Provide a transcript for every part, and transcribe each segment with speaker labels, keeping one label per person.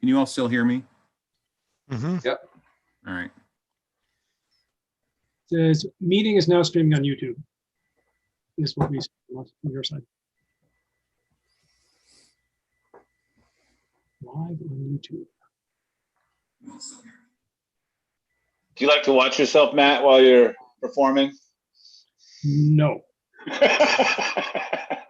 Speaker 1: Can you all still hear me?
Speaker 2: Mhm.
Speaker 1: All right.
Speaker 3: This meeting is now streaming on YouTube. This will be on your side. Live on YouTube.
Speaker 4: Do you like to watch yourself, Matt, while you're performing?
Speaker 3: No,
Speaker 4: I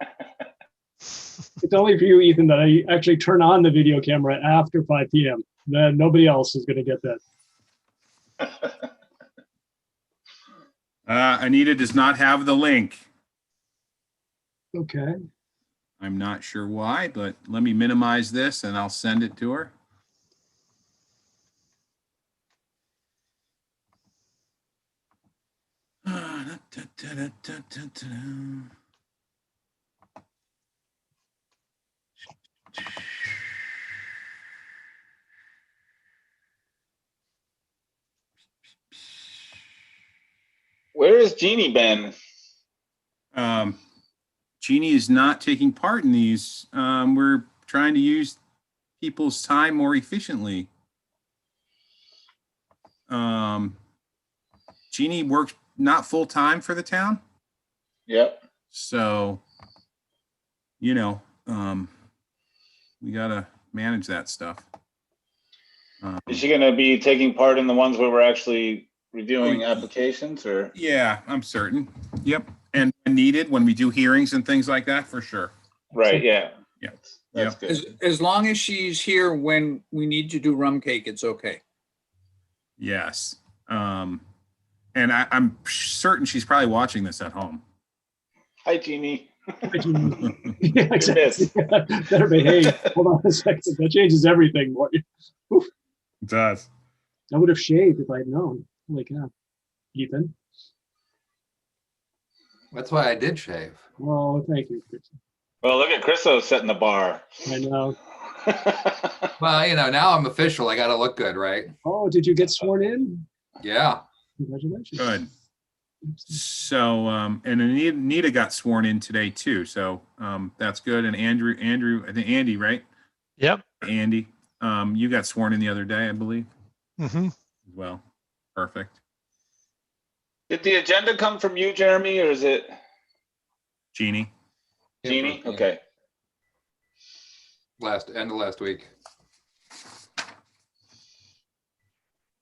Speaker 3: it's only for you, Ethan, that I actually turn on the video camera after 5 PM. Then nobody else is going to get that.
Speaker 1: Uh, Anita does not have the link.
Speaker 3: Okay.
Speaker 1: I'm not sure why, but let me minimize this and I'll send it to her. Ah,
Speaker 4: Where has Jeannie been?
Speaker 1: Um, Jeannie is not taking part in these. Um, we're trying to use people's time more efficiently. Um, Jeannie works not full time for the town,
Speaker 4: Yep.
Speaker 1: so you know, um, we gotta manage that stuff. Um,
Speaker 4: Is she going to be taking part in the ones where we're actually reviewing applications or?
Speaker 1: Oh, yeah, I'm certain. Yep, and when needed when we do hearings and things like that, for sure.
Speaker 4: Right, yeah.
Speaker 1: Yeah.
Speaker 4: That's
Speaker 5: As,
Speaker 4: good.
Speaker 5: as long as she's here when we need to do rum cake, it's okay.
Speaker 1: Yes. Um, and I, I'm certain she's probably watching this at home.
Speaker 4: Hi, Jeannie.
Speaker 3: Yeah, exactly. Better behave. Hold on a second. That changes everything. boy.
Speaker 1: does.
Speaker 3: I would have shaved if I had known. Holy cow. Ethan,
Speaker 6: That's why I did shave.
Speaker 3: oh, thank you. Chris.
Speaker 4: Well, look at Chriso setting the bar.
Speaker 3: I know.
Speaker 6: Well, you know, now I'm official. I gotta look good, right?
Speaker 3: Oh, did you get sworn in?
Speaker 6: Yeah.
Speaker 3: Congratulations.
Speaker 1: Good. So, um, and Anita, Anita got sworn in today too. So, um, that's good. And Andrew, Andrew, I think Andy, right?
Speaker 2: Yep.
Speaker 1: Andy, um, you got sworn in the other day, I believe.
Speaker 2: Mhm.
Speaker 1: Well, perfect.
Speaker 4: Did the agenda come from you, Jeremy, or is it
Speaker 1: Jeannie.
Speaker 4: Jeannie? Okay.
Speaker 6: Last, end of last week.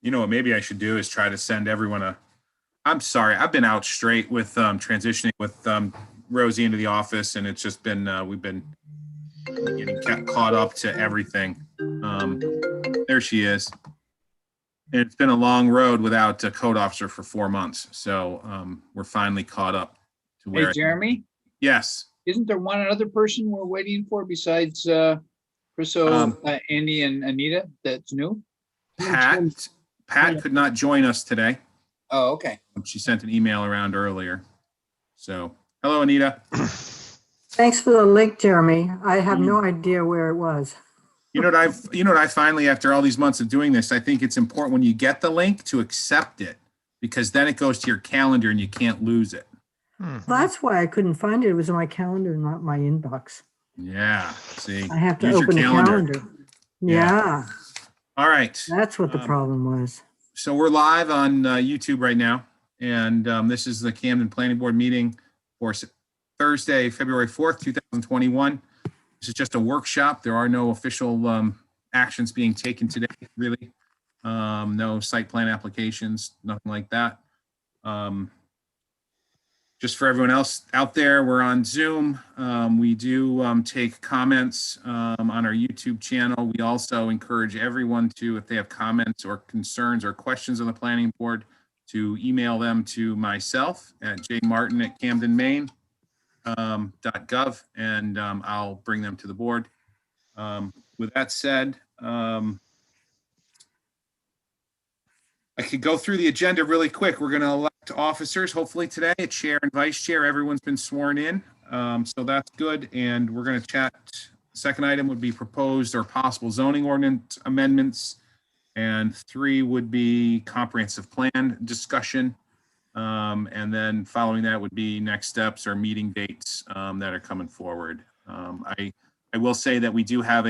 Speaker 1: You know what, maybe I should do is try to send everyone a, I'm sorry, I've been out straight with, um, transitioning with, um, Rosie into the office and it's just been, uh, we've been getting ca- caught up to everything. Um, there she is. And it's been a long road without a code officer for four months, so, um, we're finally caught up to
Speaker 5: Hey,
Speaker 1: where,
Speaker 5: Jeremy,
Speaker 1: yes,
Speaker 5: isn't there one other person we're waiting for besides, uh, Chriso,
Speaker 1: Um,
Speaker 5: uh, Andy and Anita that's new?
Speaker 1: Pat, Pat could not join us today.
Speaker 5: Oh, okay.
Speaker 1: She sent an email around earlier. So, hello, Anita.
Speaker 7: Thanks for the link, Jeremy. I have
Speaker 1: Mm.
Speaker 7: no idea where it was.
Speaker 1: You know what I've, you know what I finally, after all these months of doing this, I think it's important when you get the link to accept it because then it goes to your calendar and you can't lose it. Mm.
Speaker 2: Mhm.
Speaker 7: That's why I couldn't find it. It was in my calendar, not my inbox.
Speaker 1: Yeah, see.
Speaker 7: I have to
Speaker 1: Use your
Speaker 7: open the
Speaker 1: calendar.
Speaker 7: calendar.
Speaker 1: Yeah.
Speaker 7: Yeah,
Speaker 1: All right.
Speaker 7: that's what the
Speaker 1: Um,
Speaker 7: problem was.
Speaker 1: So we're live on uh, YouTube right now. And um, this is the Camden Planning Board meeting for S- Thursday, February 4th, 2021. This is just a workshop. There are no official um, actions being taken today, really. Um, No site plan applications, nothing like that. Um, Just for everyone else out there, we're on Zoom. Um, We do um, take comments um, on our YouTube channel. We also encourage everyone to, if they have comments or concerns or questions on the planning board, to email them to myself at jmartin@camdenmaine.gov, and um, I'll bring them to the board. Um, With that said, um, I could go through the agenda really quick. We're going to elect officers, hopefully today, a chair and vice chair. Everyone's been sworn in, um, so that's good. And we're going to chat. Second item would be proposed or possible zoning ordinance amendments. And three would be comprehensive plan discussion. Um, and then following that would be next steps or meeting dates, um, that are coming forward. Um, I, I will say that we do have a.